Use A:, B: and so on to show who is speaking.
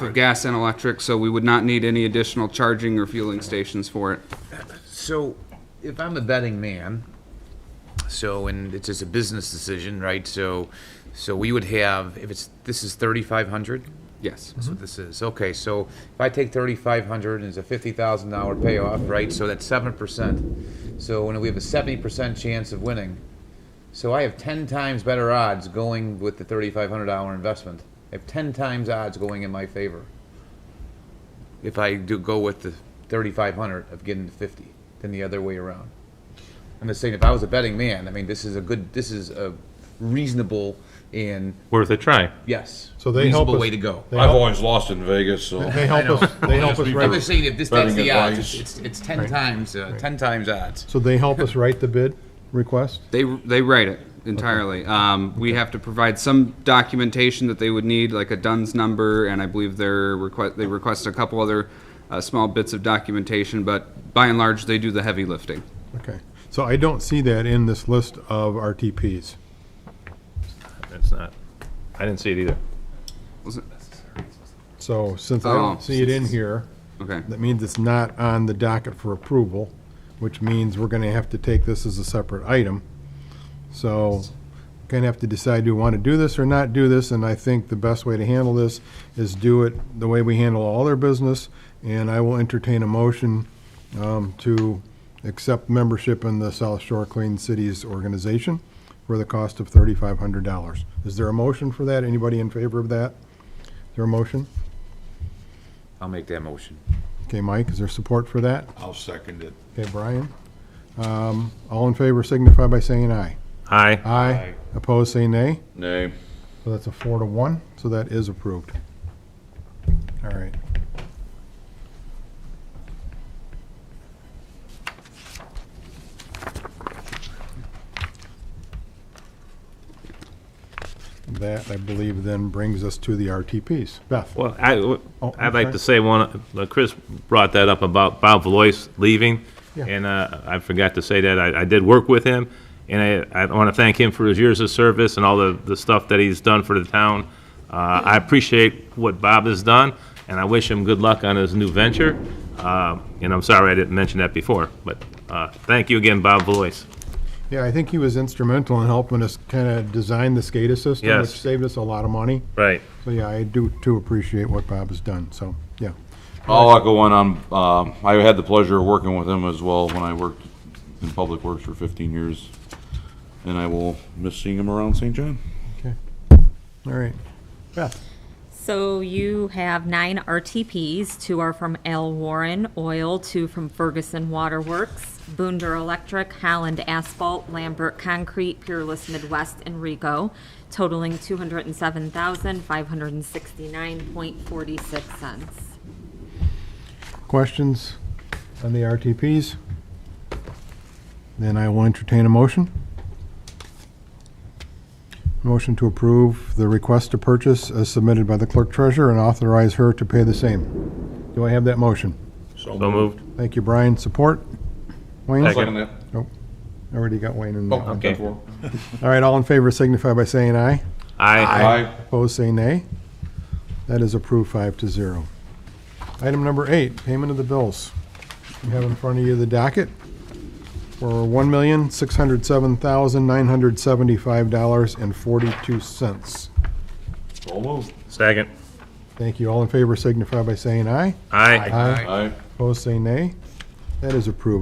A: for gas and electric, so we would not need any additional charging or fueling stations for it.
B: So, if I'm a betting man, so, and it's just a business decision, right? So, so we would have, if it's, this is thirty-five hundred?
A: Yes.
B: That's what this is. Okay, so if I take thirty-five hundred and it's a fifty thousand dollar payoff, right? So that's seven percent. So when we have a seventy percent chance of winning, so I have ten times better odds going with the thirty-five hundred dollar investment. I have ten times odds going in my favor. If I do go with the thirty-five hundred of getting the fifty, than the other way around. I'm just saying, if I was a betting man, I mean, this is a good, this is a reasonable and
C: worth a try.
B: yes,
D: So they help
B: reasonable
D: us-
B: way to go.
D: They
E: I've
D: help-
E: always lost in Vegas, so.
D: They help us, they help us
B: I'm
D: write,
B: just saying, if this,
E: Betting
B: that's the odds,
E: advice.
B: it's, it's, it's ten times, uh, ten times odds.
D: so they help us write the bid request?
A: They, they write it entirely. Um, we have to provide some documentation that they would need, like a DUNS number, and I believe they're request, they request a couple other, uh, small bits of documentation, but by and large, they do the heavy lifting.
D: Okay, so I don't see that in this list of RTPs.
C: It's not. I didn't see it either.
A: Was it-
D: So since I
A: Oh.
D: don't see it in here,
A: Okay,
D: that means it's not on the docket for approval, which means we're gonna have to take this as a separate item. So, gonna have to decide, do we wanna do this or not do this? And I think the best way to handle this is do it the way we handle all their business. And I will entertain a motion, um, to accept membership in the South Shore Clean Cities Organization for the cost of thirty-five hundred dollars. Is there a motion for that? Anybody in favor of that? Is there a motion?
B: I'll make that motion.
D: Okay, Mike, is there support for that?
E: I'll second it.
D: Okay, Brian. Um, All in favor signify by saying aye.
C: Aye.
D: Aye. Opposed, say nay.
E: Nay.
D: So that's a four to one, so that is approved. All right. That, I believe, then brings us to the RTPs. Beth?
C: Well, I, w-
D: Oh,
C: I'd like
D: okay.
C: to say one, uh, Chris brought that up about Bob Valois leaving,
D: Yeah.
C: and uh, I forgot to say that. I, I did work with him, and I, I want to thank him for his years of service and all the, the stuff that he's done for the town. Uh, I appreciate what Bob has done, and I wish him good luck on his new venture. Uh, And I'm sorry I didn't mention that before, but uh, thank you again, Bob Valois.
D: Yeah, I think he was instrumental in helping us kind of design the SCADA system, which
C: Yes.
D: saved us a lot of money.
C: Right.
D: So, yeah, I do, too appreciate what Bob has done, so, yeah.
E: I'll echo one on, um, I had the pleasure of working with him as well when I worked in Public Works for fifteen years. And I will miss seeing him around St. John.
D: Okay. All right. Beth?
F: So you have nine RTPs. Two are from Al Warren Oil, two from Ferguson Waterworks, Boonder Electric, Holland Asphalt, Lambert Concrete, Peerless Midwest, and Rico, totaling two hundred and seven thousand, five hundred and sixty-nine point forty-six cents.
D: Questions on the RTPs? Then I will entertain a motion. Motion to approve the request to purchase as submitted by the clerk treasurer and authorize her to pay the same. Do I have that motion?
C: So moved.
D: Thank you, Brian. Support? Wayne?
C: Second. Oh,
E: Second it.
D: Already got Wayne in that one.
C: Okay.
D: All right, all in favor signify by saying aye.
C: Aye.
E: Aye.
D: Opposed, say nay. That is approved five to zero. Item number eight, payment of the bills. You have in front of you the docket for one million, six hundred seven thousand, nine hundred seventy-five dollars and forty-two cents.
E: So moved.
C: Second.
D: Thank you. All in favor signify by saying aye.
C: Aye.
D: Aye.
E: Aye.
D: Opposed, say nay. That is approved